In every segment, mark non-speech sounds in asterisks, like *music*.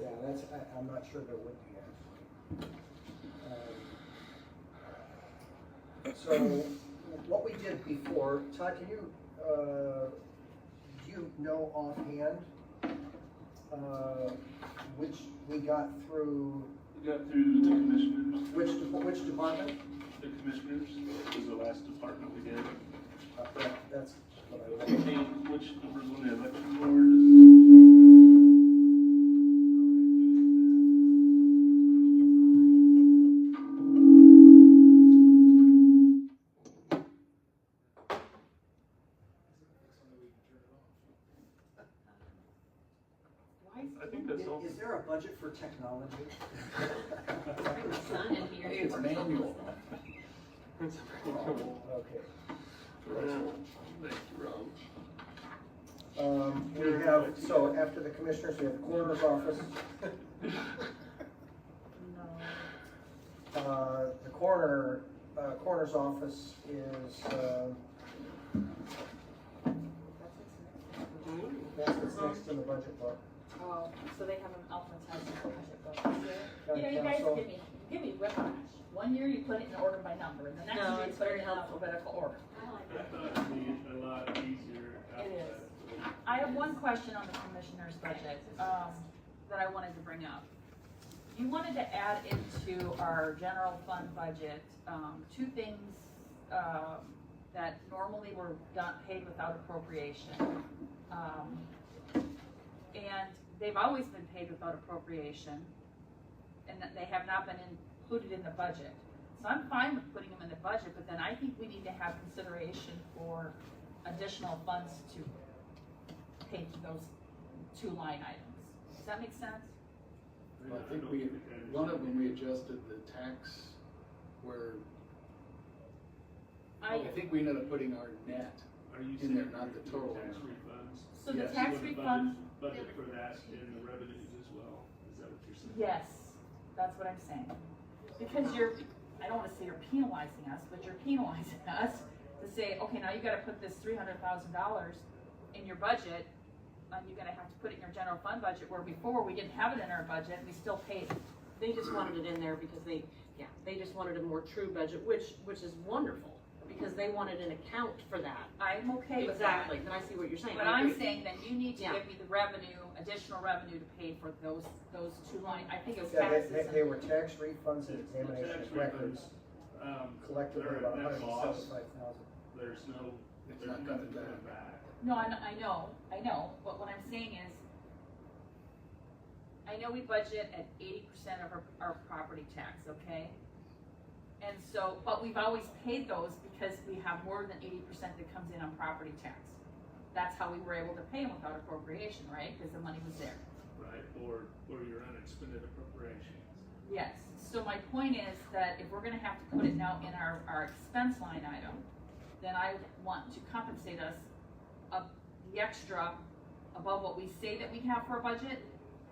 Yeah, that's, I, I'm not sure there would be actually. Um, So what we did before, Todd, can you, uh, do you know offhand, uh, which we got through, We got through the commissioners, which, de- which department? the commissioners was the last department we did. Uh, that- That's what I I was. think which numbers on the election board. I think that's all. Is is there a budget for technology? Son in here. It's manual. Okay. Thank you, Rob. Um, we have, so after the commissioners, we have coroner's office. Uh, the coroner, uh, coroner's office is, uh, that's what's next in the budget book. Oh, so they have an alphabetized budget book. County You know, you guys council. give me, give me whiplash. One year you put it in order by number, and the next No, year you it's put very it in helpful. alphabetical order. I thought it'd be a lot easier It after is. that. I have one question on the commissioner's budget, um, that I wanted to bring up. You wanted to add into our general fund budget, um, two things, um, that normally were done, paid without appropriation. Um, And they've always been paid without appropriation, and that they have not been included in the budget. So I'm fine with putting them in the budget, but then I think we need to have consideration for additional funds to pay for those two line items. Does that make sense? I think we, one of them, we adjusted the tax where, I I, think we ended up putting our net. Are you in saying there, not the total tax amount. refunds? so the yes, tax You want a refund, budget- Budget for that and the revenues as well, is that what you're saying? yes, that's what I'm saying. Because you're, I don't wanna say you're penalizing us, but you're penalizing *laughs* us to say, okay, now you gotta put this three hundred thousand dollars in your budget, and you're gonna have to put it in your general fund budget, where before we didn't have it in our budget, we still paid it. They just wanted it in there because they, yeah, they just wanted a more true budget, which, which is wonderful, because they wanted an account for that. I'm okay with that. Exactly, then I see what you're saying. But I I'm agree. saying that you need to Yeah. give me the revenue, additional revenue to pay for those, those two line, I think it was Yeah, they- taxes they, and they were tax refunds and The examination tax of records refunds, um, collectively they're about a hundred net and loss, seventy-five thousand. there's no, It's there's not nothing coming coming back. back. No, I, I know, I know, but what I'm saying is, I know we budget at eighty percent of our, our property tax, okay? And so, but we've always paid those because we have more than eighty percent that comes in on property tax. That's how we were able to pay them without appropriation, right? Because the money was there. Right, or, or your unexpended appropriations. Yes, so my point is that if we're gonna have to put it now in our, our expense line item, then I want to compensate us of the extra above what we say that we have for a budget,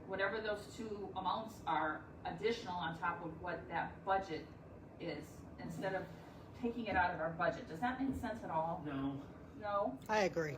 whatever those two amounts are additional on top of what that budget is, instead of taking it out of our budget. Does that make sense at all? No, No? I agree.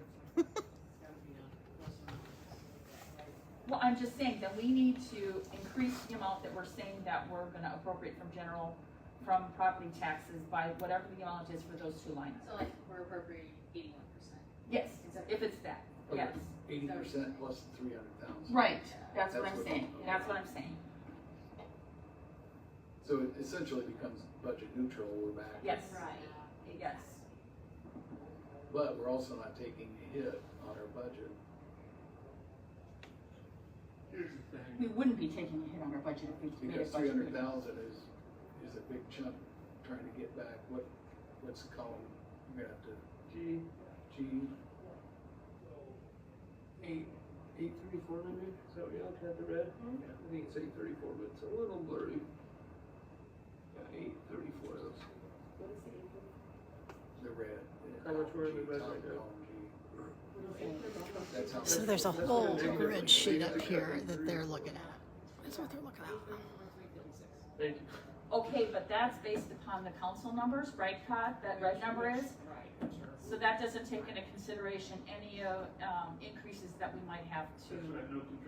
Well, I'm just saying that we need to increase the amount that we're saying that we're gonna appropriate from general, from property taxes by whatever the amount is for those two lines. So like, we're appropriating eighty-one percent. Yes, if it's that, yes. Eighty percent plus three hundred thousand. Right, that's what That's I'm what- saying, that's what I'm saying, So it essentially becomes budget neutral, we're back. yes, Right. yes. But we're also not taking a hit on our budget. here's the thing. We wouldn't be taking a hit on our budget if we made a Because three hundred budget. thousand is, is a big chunk, trying to get back, what, what's the column? You're gonna have to, G, G. Eight, eight thirty-four maybe, is that what you're looking at the red? I think it's eight thirty-four, but it's a little blurry. Yeah, eight thirty-four, that's. The red. How much were the red right That's how. So there's a whole grid sheet up here that they're looking at. That's what they're looking at. Thank you. Okay, but that's based upon the council numbers, right, Todd, that red number is? Right. So that doesn't take into consideration any, uh, um, increases that we might have to. That's what I know.